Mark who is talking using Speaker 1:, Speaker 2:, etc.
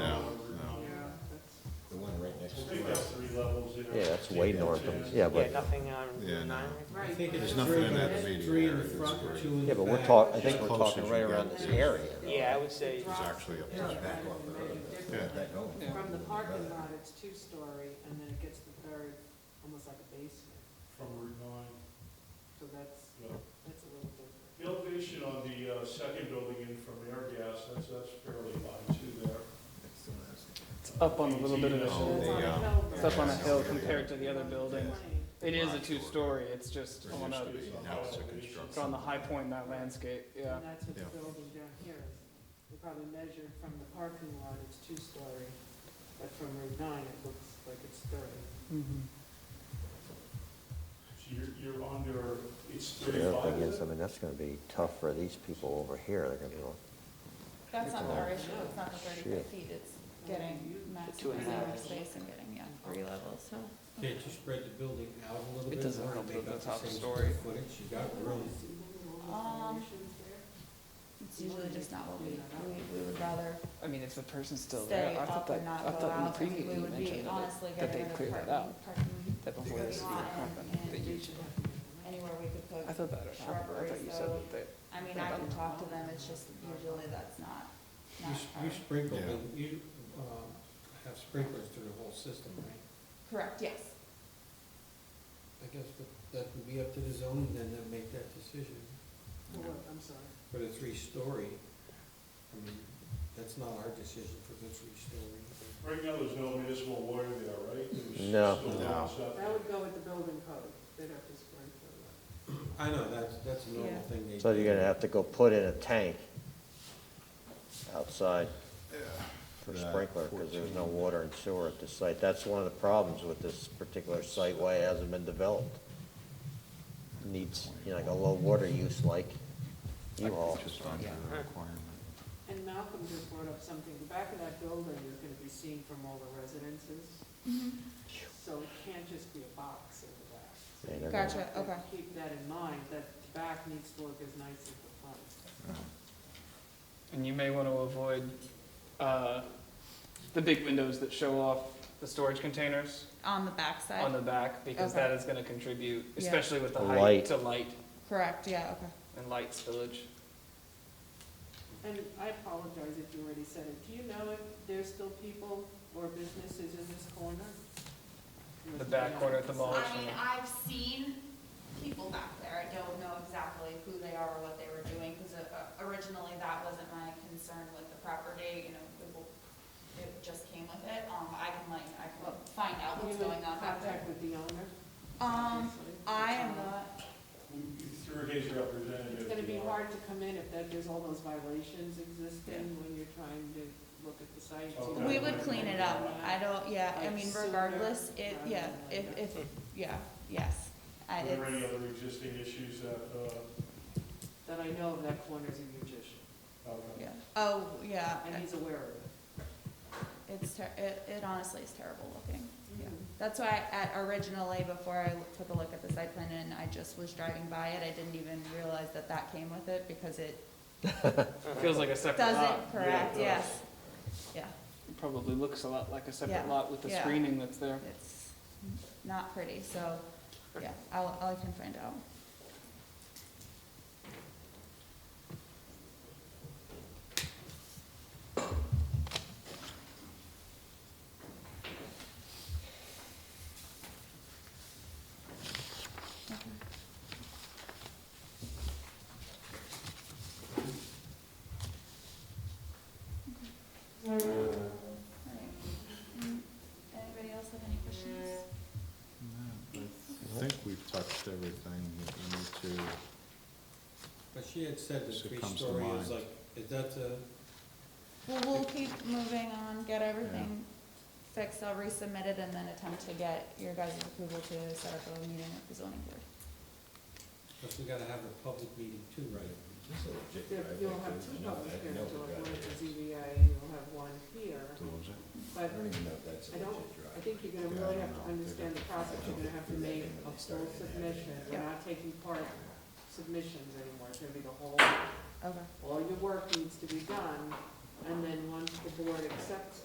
Speaker 1: way north of, yeah,
Speaker 2: Yeah,
Speaker 1: but,
Speaker 2: nothing on
Speaker 3: Yeah,
Speaker 2: Route
Speaker 3: no.
Speaker 2: nine.
Speaker 4: I think
Speaker 3: There's
Speaker 4: it's
Speaker 3: nothing
Speaker 4: three,
Speaker 3: in that
Speaker 4: it's
Speaker 3: immediate
Speaker 4: three in
Speaker 3: area that's
Speaker 4: front,
Speaker 3: great.
Speaker 4: two in the back.
Speaker 1: yeah, but we're talk, I think
Speaker 3: As
Speaker 1: we're
Speaker 3: close
Speaker 1: talking
Speaker 3: as
Speaker 1: right
Speaker 3: you
Speaker 1: around
Speaker 3: get
Speaker 1: this
Speaker 3: to-
Speaker 1: area.
Speaker 2: Yeah, I would say,
Speaker 3: It's actually up to the back of the road. Yeah,
Speaker 5: From the parking lot, it's two-story, and then it gets to the third, almost like a basement,
Speaker 4: From Route nine,
Speaker 5: so that's,
Speaker 4: yeah.
Speaker 5: that's a little different.
Speaker 6: The elevation on the uh, second building in from air gas, that's, that's fairly high too there.
Speaker 7: It's up on a little bit of a hill.
Speaker 3: Oh,
Speaker 5: It's on
Speaker 3: they,
Speaker 5: a
Speaker 3: um,
Speaker 5: hill,
Speaker 7: It's up on a
Speaker 3: yeah.
Speaker 7: hill compared to the other buildings.
Speaker 5: Twenty.
Speaker 7: It is a two-story, it's just
Speaker 3: There
Speaker 7: on
Speaker 3: used
Speaker 7: a,
Speaker 3: to be, now it's a construction.
Speaker 7: it's on the high point in that landscape, yeah.
Speaker 5: And that's what the
Speaker 3: Yeah.
Speaker 5: building down here is. They probably measured from the parking lot, it's two-story, but from Route 9, it looks like it's thirty.
Speaker 8: Mm-hmm.
Speaker 7: Mhm.
Speaker 6: So you're, you're under, it's
Speaker 1: So The other thing
Speaker 6: thirty-five.
Speaker 1: is, I mean, that's gonna be tough for these people over here, they're gonna be like,
Speaker 8: That's not our issue, it's not the thirty-five
Speaker 1: Shit.
Speaker 8: feet, it's getting
Speaker 2: two and a
Speaker 8: maximizing
Speaker 2: half.
Speaker 8: our space and getting, yeah, three levels, so.
Speaker 4: Can't you spread the building out a little
Speaker 7: It
Speaker 4: bit?
Speaker 7: doesn't
Speaker 4: more to
Speaker 7: help
Speaker 4: make
Speaker 7: that
Speaker 4: up
Speaker 7: the
Speaker 4: the
Speaker 7: top
Speaker 4: same
Speaker 7: story-
Speaker 4: square footage? You got room.
Speaker 8: Um, It's usually just not what we, we, we would rather
Speaker 7: I mean, if the person's still
Speaker 8: stay
Speaker 7: there, I
Speaker 8: up
Speaker 7: thought
Speaker 8: and
Speaker 7: that,
Speaker 8: not
Speaker 7: I
Speaker 8: go
Speaker 7: thought in the
Speaker 8: out. I
Speaker 7: preview
Speaker 8: mean, we
Speaker 7: you
Speaker 8: would be
Speaker 7: mentioned that,
Speaker 8: honestly
Speaker 7: that
Speaker 8: getting
Speaker 7: they
Speaker 8: rid of
Speaker 7: cleared that
Speaker 8: parking,
Speaker 7: out.
Speaker 8: parking
Speaker 7: that before
Speaker 8: we
Speaker 7: this would
Speaker 8: want
Speaker 7: happen,
Speaker 8: and-
Speaker 7: that you
Speaker 8: and we
Speaker 7: should.
Speaker 8: should- Anywhere we could
Speaker 7: I
Speaker 8: put,
Speaker 7: thought that had happened, I thought you said that they,
Speaker 8: I mean,
Speaker 7: I
Speaker 8: I
Speaker 7: don't
Speaker 8: can talk to them, it's just usually that's not,
Speaker 4: You
Speaker 8: not
Speaker 4: s-
Speaker 8: our,
Speaker 4: You sprinkle,
Speaker 3: Yeah.
Speaker 4: in- you um, have sprinklers through the whole system, right?
Speaker 8: correct, yes.
Speaker 4: I guess that- that would be up to the zoning then to make that decision.
Speaker 5: Oh, what, I'm sorry.
Speaker 4: For the three-story, I mean, that's not our decision for the three-story.
Speaker 6: Right now, there's no municipal water there, right? There's
Speaker 1: No.
Speaker 6: still
Speaker 3: No.
Speaker 6: lots up
Speaker 5: That would go with the building code. They'd have to sprinkle it.
Speaker 4: I know, that's, that's a normal
Speaker 8: Yeah.
Speaker 4: thing they do.
Speaker 1: so you're gonna have to go put in a tank outside for
Speaker 3: Yeah,
Speaker 1: sprinkler, because there's no water and sewer at this site. That's one of the problems with this particular site, why it hasn't been developed. Needs, you know, like a low water use like U-Haul.
Speaker 3: Just under the requirement.
Speaker 5: And Malcolm just brought up something, the back of that building is gonna be seen from all the residences, so it can't just be a box in the back. So
Speaker 1: Yeah,
Speaker 5: you
Speaker 1: they're
Speaker 8: Gotcha,
Speaker 5: have to
Speaker 8: okay.
Speaker 5: Keep that in mind, that the back needs to look as nice as the front.
Speaker 7: and you may want to avoid, uh, the big windows that show off the storage containers
Speaker 8: On the backside?
Speaker 7: on the back, because
Speaker 8: Okay.
Speaker 7: that is gonna contribute,
Speaker 8: Yeah.
Speaker 7: especially with the
Speaker 1: The
Speaker 7: height,
Speaker 1: light.
Speaker 7: to light
Speaker 8: Correct, yeah, okay.
Speaker 7: and light spillage.
Speaker 5: And I apologize if you already said it, do you know if there's still people or businesses in this corner?
Speaker 7: The back corner at the mall.
Speaker 8: I mean, I've seen people back there, I don't know exactly who they are or what they were doing, because originally that wasn't my concern with the property, you know, it will- it just came with it, um, I can like, I can find out
Speaker 5: You
Speaker 8: what's
Speaker 5: would
Speaker 8: going on back there.
Speaker 5: Contact with the owner?
Speaker 8: Um,
Speaker 5: obviously.
Speaker 8: I am not,
Speaker 6: Through his representative.
Speaker 5: It's gonna be
Speaker 6: you know.
Speaker 5: hard to come in if that, there's all those violations existing when you're trying to look at the sites.
Speaker 7: Oh,
Speaker 5: you know.
Speaker 8: we would clean it up, I don't, yeah, I
Speaker 5: Like
Speaker 8: mean,
Speaker 5: sooner
Speaker 8: regardless, it,
Speaker 5: rather
Speaker 8: yeah,
Speaker 5: than
Speaker 8: if,
Speaker 5: later.
Speaker 8: if, yeah, yes. I,
Speaker 6: Are there any
Speaker 8: it's,
Speaker 6: other existing issues that,
Speaker 5: That I know of, that corner's a magician,
Speaker 6: uh, uh,
Speaker 8: yeah, oh, yeah,
Speaker 5: and he's aware of it.
Speaker 8: it's, ter- it, it honestly is terrible looking. Yeah, That's why at originally, before I took a look at the site plan and I just was driving by it, I didn't even realize that that came with it because it
Speaker 7: Feels like a separate lot.
Speaker 8: doesn't,
Speaker 6: yeah, it
Speaker 8: correct,
Speaker 6: does.
Speaker 8: yes. Yeah,
Speaker 7: It Probably looks a lot like a separate
Speaker 8: Yeah,
Speaker 7: lot with the
Speaker 8: yeah.
Speaker 7: screening that's there.
Speaker 8: it's not pretty, so, yeah, I'll, I can find out. All right. Mm, Anybody else have any questions?
Speaker 3: No, I think we've touched everything that we need to.
Speaker 4: But she had said the
Speaker 3: So it comes to
Speaker 4: three-story
Speaker 3: mind.
Speaker 4: is like, is that uh, the,
Speaker 8: Well, we'll keep moving on, get everything fixed, I'll resubmit it and then attempt to get your guys' approval to set up a meeting with the zoning board.
Speaker 4: because we gotta have a public meeting too, right?
Speaker 5: There- You'll have two public hearings, you'll have one at the ZBA, and you'll have one here, but I don't, I think you're gonna really have to understand the process, you're gonna have to make a full submission, we're not taking part submissions anymore, it's gonna be the whole,
Speaker 8: Okay.
Speaker 5: all your work needs to be done, and then once the board accepts